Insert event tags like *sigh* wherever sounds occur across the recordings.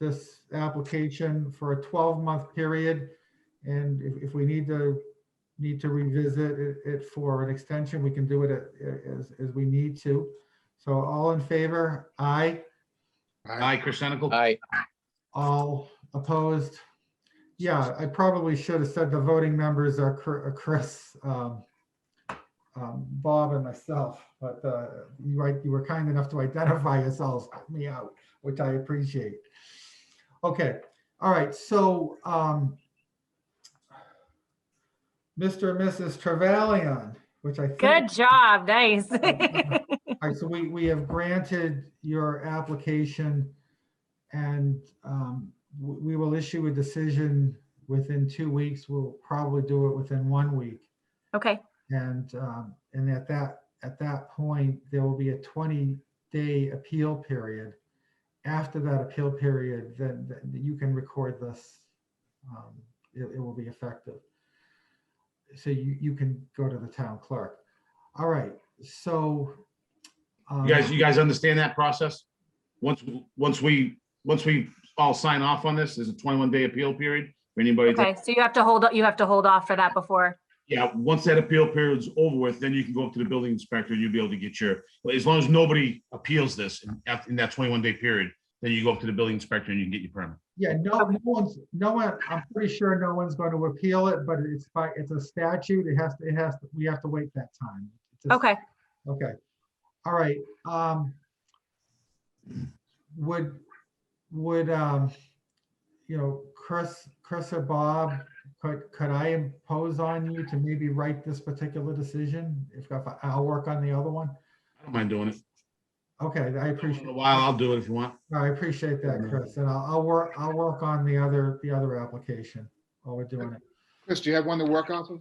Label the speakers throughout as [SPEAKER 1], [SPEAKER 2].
[SPEAKER 1] this application for a 12-month period. And if, if we need to, need to revisit it- it for an extension, we can do it a- as, as we need to. So all in favor? Aye.
[SPEAKER 2] Aye, Chris Senical.
[SPEAKER 3] Aye,
[SPEAKER 1] All opposed? Yeah, I probably should have said the voting members are Chr- are Chris, um, um, Bob and myself, but uh, you right, you were kind enough to identify yourselves, help me out, which I appreciate. Okay, all right, so um, Mr. and Mrs. Travalion, which I think.
[SPEAKER 4] Good job, *laughs* nice.
[SPEAKER 1] All right, so we, we have granted your application and um, w- we will issue a decision within two weeks. We'll probably do it within one week.
[SPEAKER 4] Okay,
[SPEAKER 1] And, um, and at that, at that point, there will be a 20-day appeal period. After that appeal period, then then you can record this. um, It, it will be effective. So you, you can go to the town clerk. All right, so. um,
[SPEAKER 2] You guys, you guys understand that process? Once, once we, once we all sign off on this, there's a twenty-one day appeal period for anybody. that-
[SPEAKER 4] okay, so you have to hold, you have to hold off for that before.
[SPEAKER 2] Yeah, once that appeal period's over with, then you can go up to the building inspector and you'll be able to get your, as long as nobody appeals this in- after- in that twenty-one day period, then you go up to the building inspector and you can get your permit.
[SPEAKER 1] Yeah, no, no one's, no one, I'm pretty sure no one's going to appeal it, but it's by, it's a statute. It has to, it has, to. we have to wait that time. It's a-
[SPEAKER 4] Okay,
[SPEAKER 1] Okay, all right, um. Would, would, um, you know, Chris, Chris or Bob, could, could I impose on you to maybe write this particular decision? If, if I- I'll work on the other one.
[SPEAKER 2] I don't mind doing it.
[SPEAKER 1] Okay, I appreciate.
[SPEAKER 2] In a while, I'll do it if you want.
[SPEAKER 1] I appreciate that, Chris, and I'll, I'll work, I'll work on the other, the other application while we're doing it.
[SPEAKER 5] Chris, do you have one to work off of?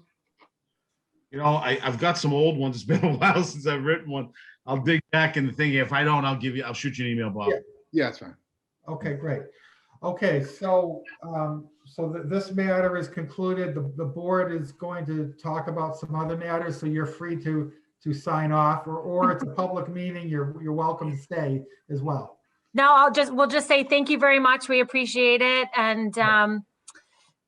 [SPEAKER 2] You know, I, I've got some old ones. It's been a *laughs* while since I've written one. I'll dig back in the thing. If I don't, I'll give you, I'll shoot you an email, Bob.
[SPEAKER 5] Yeah, that's fine.
[SPEAKER 1] Okay, great. Okay, so, um, so th- this matter is concluded. The, the board is going to talk about some other matters, so you're free to, to sign off, or, or it's a public meeting, you're, you're welcome to stay as well.
[SPEAKER 4] no, I'll just, we'll just say thank you very much, we appreciate it, and um,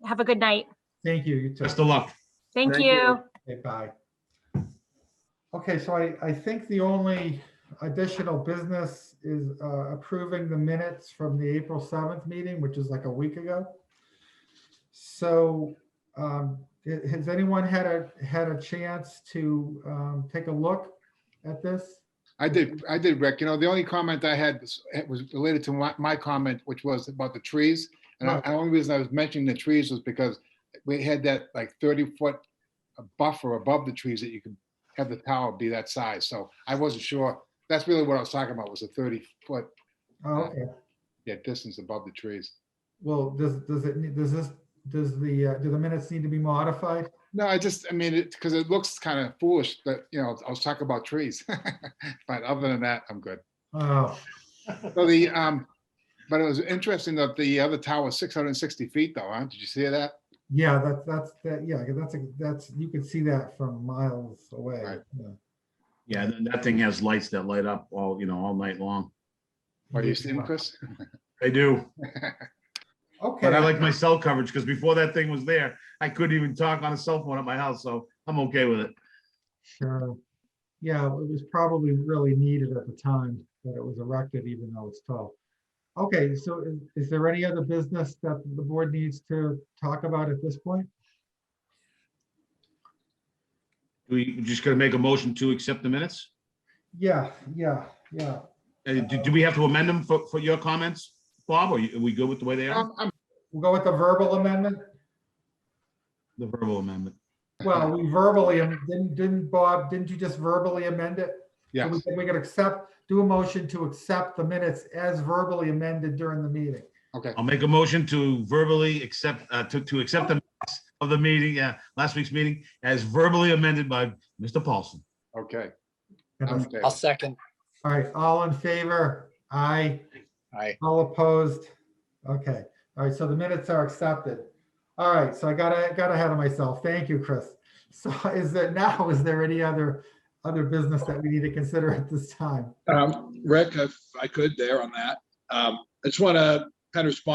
[SPEAKER 4] have a good night.
[SPEAKER 1] Thank you, you too.
[SPEAKER 2] Best of luck.
[SPEAKER 4] Thank
[SPEAKER 3] Thank
[SPEAKER 4] you.
[SPEAKER 1] Okay, bye. Okay, so I, I think the only additional business is uh, approving the minutes from the April 7th meeting, which is like a week ago. So um, ha- has anyone had a, had a chance to um, take a look at this?
[SPEAKER 5] I did, I did, Rick. You know, the only comment I had was, it was related to my, my comment, which was about the trees. And I-
[SPEAKER 1] Right.
[SPEAKER 5] the only reason I was mentioning the trees was because we had that like thirty foot buffer above the trees that you could have the tower be that size. So I wasn't sure. That's really what I was talking about was the thirty foot,
[SPEAKER 1] Oh, Okay,
[SPEAKER 5] yeah, distance above the trees.
[SPEAKER 1] well, does, does it, need- does this, does the, uh, do the minutes need to be modified?
[SPEAKER 5] No, I just, I mean, it, because it looks kind of foolish, but you know, I was talking about trees. *laughs* But other than that, I'm good.
[SPEAKER 1] Oh,
[SPEAKER 5] So the, um, but it was interesting that the other tower was six hundred and sixty feet though, huh? Did you see that?
[SPEAKER 1] Yeah, that's, that's, that, yeah, that's, a that's, you can see that from miles away.
[SPEAKER 5] Right.
[SPEAKER 1] yeah.
[SPEAKER 2] Yeah, and then that thing has lights that light up all, you know, all night long.
[SPEAKER 5] Or do you see them, Chris?
[SPEAKER 2] They do.
[SPEAKER 1] Okay,
[SPEAKER 2] But I like my cell coverage because before that thing was there, I couldn't even talk on a cell phone at my house, so I'm okay with it.
[SPEAKER 1] sure. Uh, Yeah, it was probably really needed at the time that it was erected, even though it's tall. Okay, so is, is there any other business that the board needs to talk about at this point?
[SPEAKER 2] We just gonna make a motion to accept the minutes?
[SPEAKER 1] Yeah, yeah, yeah.
[SPEAKER 2] Uh, do, do we have to amend them for, for your comments, Bob? Or you- are we good with the way they are?
[SPEAKER 5] Um, I'm-
[SPEAKER 1] We'll go with the verbal amendment.
[SPEAKER 2] The verbal amendment.
[SPEAKER 1] Well, we verbally, am- didn't, didn't Bob, didn't you just verbally amend it? So
[SPEAKER 5] Yeah,
[SPEAKER 1] We can- we can accept, do a motion to accept the minutes as verbally amended during the meeting.
[SPEAKER 5] okay.
[SPEAKER 2] I'll make a motion to verbally accept, uh, to, to accept the minutes of the meeting, uh, last week's meeting as verbally amended by Mr. Paulson.
[SPEAKER 5] Okay. I'm
[SPEAKER 1] All
[SPEAKER 5] okay.
[SPEAKER 3] I'll second.
[SPEAKER 1] right, all in favor? Aye.
[SPEAKER 3] Aye.
[SPEAKER 1] All opposed? Okay, all right, so the minutes are accepted. All right, so I got, I got ahead of myself. Thank you, Chris. *laughs* So is there now, is there any other, other business that we need to consider at this time?
[SPEAKER 6] Um, Rick, if I could there on that, um, I just want to kind of respond